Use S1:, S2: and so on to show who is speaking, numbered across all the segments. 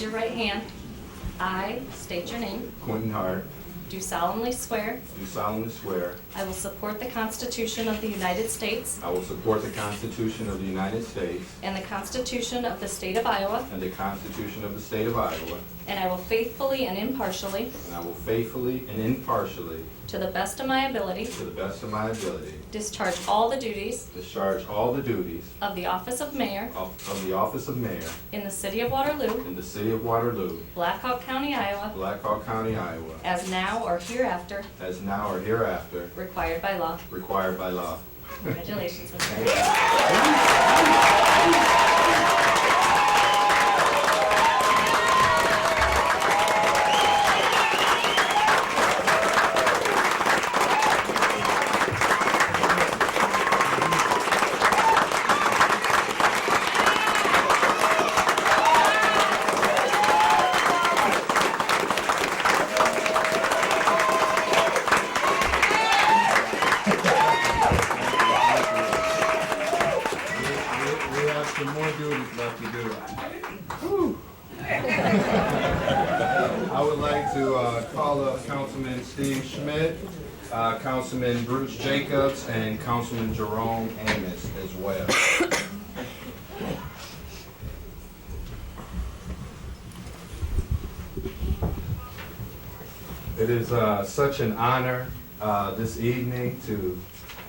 S1: your right hand. I state your name.
S2: Quentin Hart,
S1: Do solemnly swear
S2: do solemnly swear
S1: I will support the Constitution of the United States
S2: I will support the Constitution of the United States
S1: and the Constitution of the State of Iowa,
S2: and the Constitution of the State of Iowa,
S1: and I will faithfully and impartially,
S2: and I will faithfully and impartially,
S1: to the best of my ability,
S2: to the best of my ability,
S1: discharge all the duties
S2: discharge all the duties
S1: of the office of mayor
S2: of of the office of mayor
S1: in the city of Waterloo,
S2: in the city of Waterloo,
S1: Black Hawk County, Iowa,
S2: Black Hawk County, Iowa,
S1: as now or hereafter
S2: as now or hereafter
S1: required by law.
S2: required by law.
S1: Congratulations, Mr. Mayor.
S3: We we have some more duties left to do.
S2: I would like to uh, call up Councilman Steve Schmidt, uh, Councilman Bruce Jacobs, and Councilman Jerome Amos as well. It is uh, such an honor uh, this evening to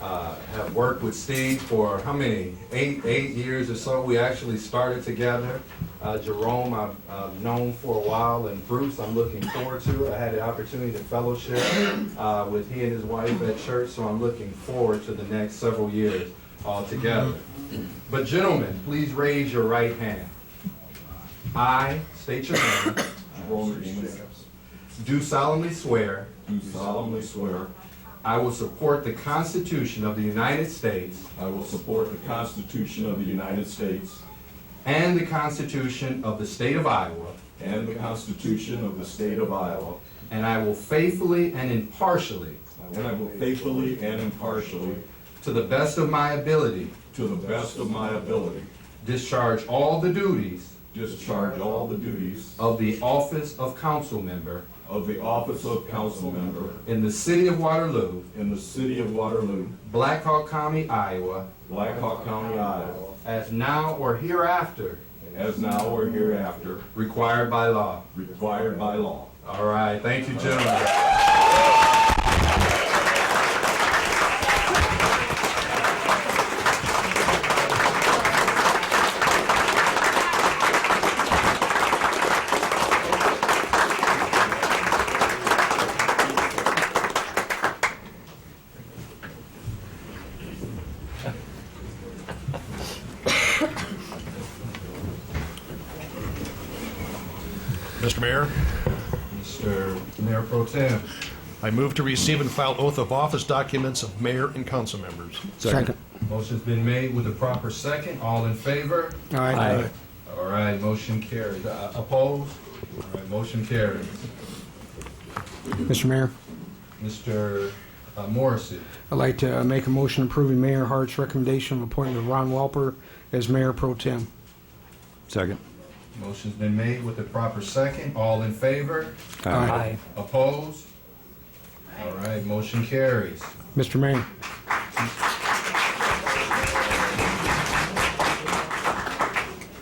S2: uh, have worked with Steve for how many? Eight, eight years or so. We actually started together. Uh, Jerome, I've uh, known for a while, and Bruce, I'm looking forward to. I had the opportunity to fellowship uh, with he and his wife at church, so I'm looking forward to the next several years all together. But gentlemen, please raise your right hand. I state your name.
S4: Roland Jacobs.
S2: Do solemnly swear
S4: Do solemnly swear
S2: I will support the Constitution of the United States
S4: I will support the Constitution of the United States
S2: and the Constitution of the State of Iowa,
S4: and the Constitution of the State of Iowa,
S2: and I will faithfully and impartially,
S4: and I will faithfully and impartially,
S2: to the best of my ability,
S4: to the best of my ability,
S2: discharge all the duties
S4: discharge all the duties
S2: of the office of council member
S4: of the office of council member
S2: in the city of Waterloo,
S4: in the city of Waterloo,
S2: Black Hawk County, Iowa,
S4: Black Hawk County, Iowa,
S2: as now or hereafter
S4: as now or hereafter
S2: required by law.
S4: required by law.
S2: All right, thank you, gentlemen.
S5: Mr. Mayor,
S2: Mr. Mayor Pro Tem.
S5: I move to receive and file oath of office documents of mayor and council members.
S6: Second.
S2: Motion's been made with the proper second. All in favor?
S6: Aye.
S2: All right, motion carries. Uh, Opposed? All right, motion carries.
S6: Mr. Mayor,
S2: Mr. uh, Morrissey,
S6: I'd like to make a motion approving Mayor Hart's recommendation of appointment of Ron Walper as mayor pro tem.
S7: Second.
S2: motion's been made with the proper second. All in favor?
S6: Aye.
S2: Opposed? All right, motion carries.
S6: Mr. Mayor,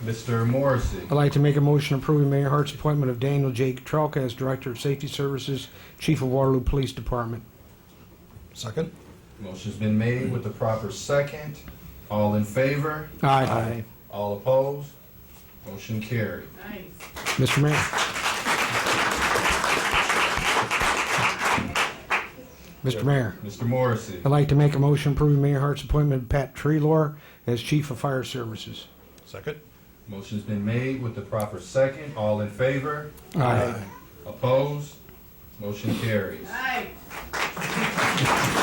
S2: Mr. Morrissey,
S6: I'd like to make a motion approving Mayor Hart's appointment of Daniel J. Trelka as Director of Safety Services, Chief of Waterloo Police Department.
S5: Second?
S2: motion's been made with the proper second. All in favor?
S6: Aye.
S2: All opposed? Motion carries.
S6: Mr. Mayor. Mr. Mayor,
S2: Mr. Morrissey,
S6: I'd like to make a motion approving Mayor Hart's appointment of Pat Treelor as Chief of Fire Services.
S5: Second?
S2: motion's been made with the proper second. All in favor? Opposed? Motion carries.